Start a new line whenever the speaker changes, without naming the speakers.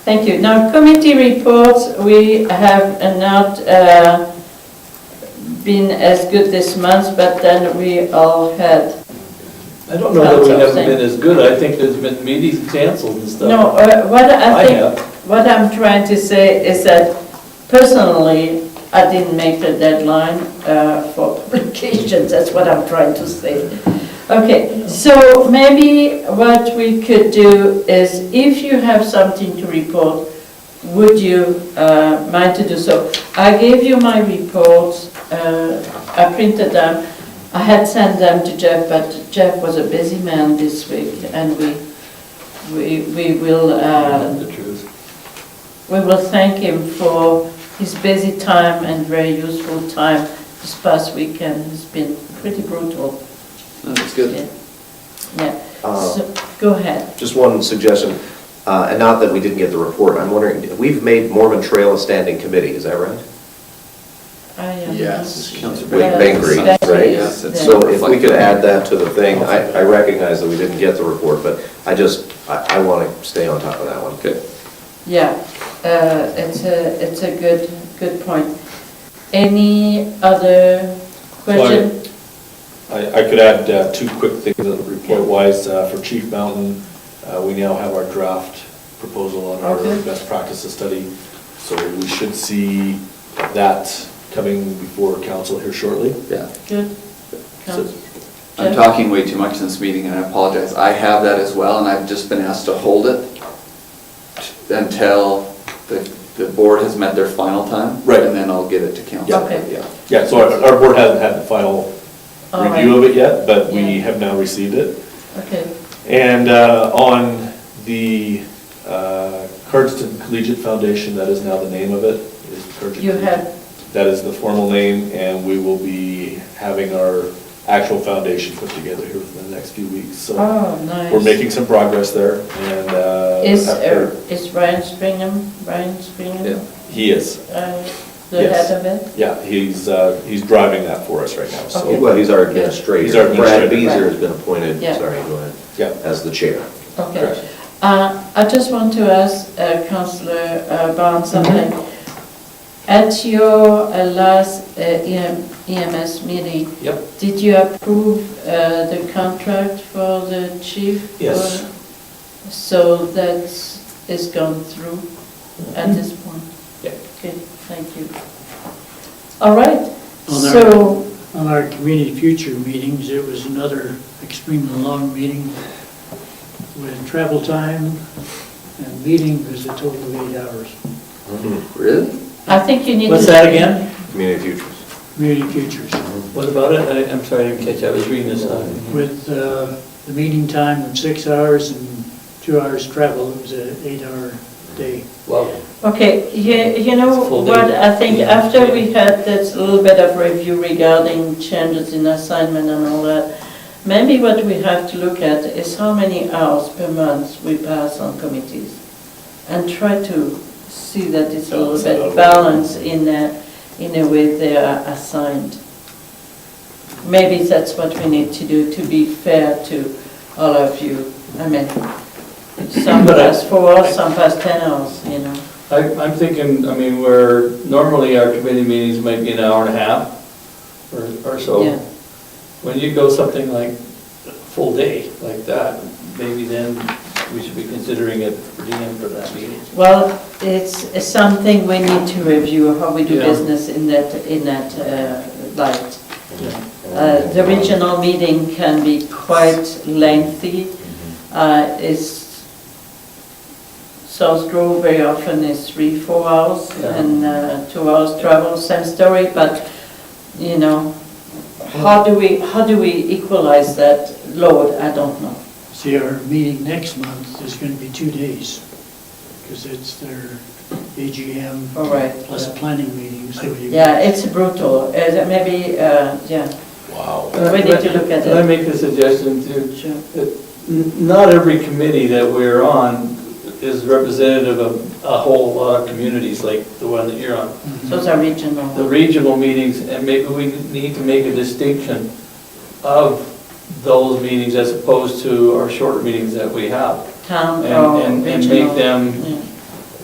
Thank you. Now, committee reports, we have not uh, been as good this month, but then we all had,
I don't know that
That's
we
what I'm
haven't
saying.
been as good, I think there's been meetings canceled and stuff.
no, uh, what I
I
think,
have,
what I'm trying to say is that personally, I didn't make the deadline uh, for publications, that's what I'm trying to say. Okay, so maybe what we could do is, if you have something to report, would you uh, mind to do so? I gave you my reports, uh, I printed them, I had sent them to Jeff, but Jeff was a busy man this week, and we, we we will uh,
the truth.
we will thank him for his busy time and very useful time this past weekend. It's been pretty brutal.
That's good.
Yeah,
Uh,
so, go ahead.
Just one suggestion, uh, and not that we didn't get the report, I'm wondering, we've made Mormon Trail a standing committee, is that right?
I am-
Yes, Councillor
With
Yeah,
Bangry,
that
right?
is-
Yes, it's-
So if we could add that to the thing, I I recognize that we didn't get the report, but I just, I want to stay on top of that one.
Okay.
Yeah, uh, it's a, it's a good, good point. Any other question?
I, I could add uh, two quick things report-wise. Uh, For Chief Mountain, uh, we now have our draft proposal on our
Okay.
best practices study. So we should see that coming before council here shortly.
Yeah.
Good. Council-
I'm talking way too much in this meeting, and I apologize. I have that as well, and I've just been asked to hold it until the, the board has met their final time.
Right.
And then I'll get it to council.
Yeah. Okay.
Yeah.
Yeah, so our, our board hasn't had the final
All right.
review of it yet, but we
Yeah.
have now received it.
Okay,
And uh, on the uh, Cardston Collegiate Foundation, that is now the name of it, is Cardston
You have-
Collegiate. That is the formal name, and we will be having our actual foundation put together here within the next few weeks. So
oh, nice.
we're making some progress there, and uh,
Is,
after-
uh, is Ryan Springham, Ryan Springham?
Yeah.
he is,
uh, the
Yes.
head of it?
yeah, he's, uh, he's driving that for us right now,
Okay.
so,
Oh, Well, he's our administrator.
He's our administrator.
Brad Beazer has been appointed,
Yeah.
sorry, go ahead,
yeah.
as the chair.
Okay.
Correct.
Uh, I just want to ask uh, councillor uh, Barnes
Mm-hmm.
something. At your uh, last uh, EM EMS meeting,
Yep.
did you approve uh, the contract for the chief?
Yes.
Or- So that is gone through at this point?
Mm-hmm. Yeah.
Okay, thank you. All right,
On our-
so...
On our community future meetings, it was another extremely long meeting with travel time and meeting was a total of eight hours.
Really?
I think you need to...
What's that again?
Community Futures.
Community futures
What about it? I- I'm sorry, I didn't catch, I was reading this. uh,
with uh, the meeting time of six hours and two hours travel. It was an eight-hour day.
Wow.
Okay, you, you know
It's full
what,
day.
I think
Yeah,
after
yeah.
we had this little bit of review regarding changes in assignment and all that, maybe what we have to look at is how many hours per month we pass on committees. And try to see that it's a little
Balance it
bit
out.
balanced in a, in a way they are assigned. Maybe that's what we need to do to be fair to all of you. I mean, some
But I-
pass four hours, some pass 10 hours, you know.
I- I'm thinking, I mean, where normally our committee meetings might be an hour and a half or or
Yeah.
so. When you go something like a full day like that, maybe then we should be considering it for DM for that meeting.
Well, it's it's something we need to review, how we do
Yeah.
business in that, in that uh, light. Uh, The regional meeting can be quite lengthy.
Mm-hmm.
Uh, It's, South Grove very often is three, four hours
Yeah.
and uh, two hours travel, same story, but, you know, how do we, how do we equalize that load? I don't know.
See, our meeting next month is going to be two days because it's their AGM
All right.
plus a planning meeting, so you...
Yeah, it's brutal. Uh, that Maybe, uh, yeah.
Wow.
We need to look at
Can I
it.
make a suggestion too?
Sure.
N- Not every committee that we're on is representative of a whole lot of communities like the one that you're on.
Those are regional.
Mm-hmm. The regional meetings, and maybe we need to make a distinction of those meetings as opposed to our shorter meetings that we have.
Town
And,
or
and and
regional.
make them
Yeah.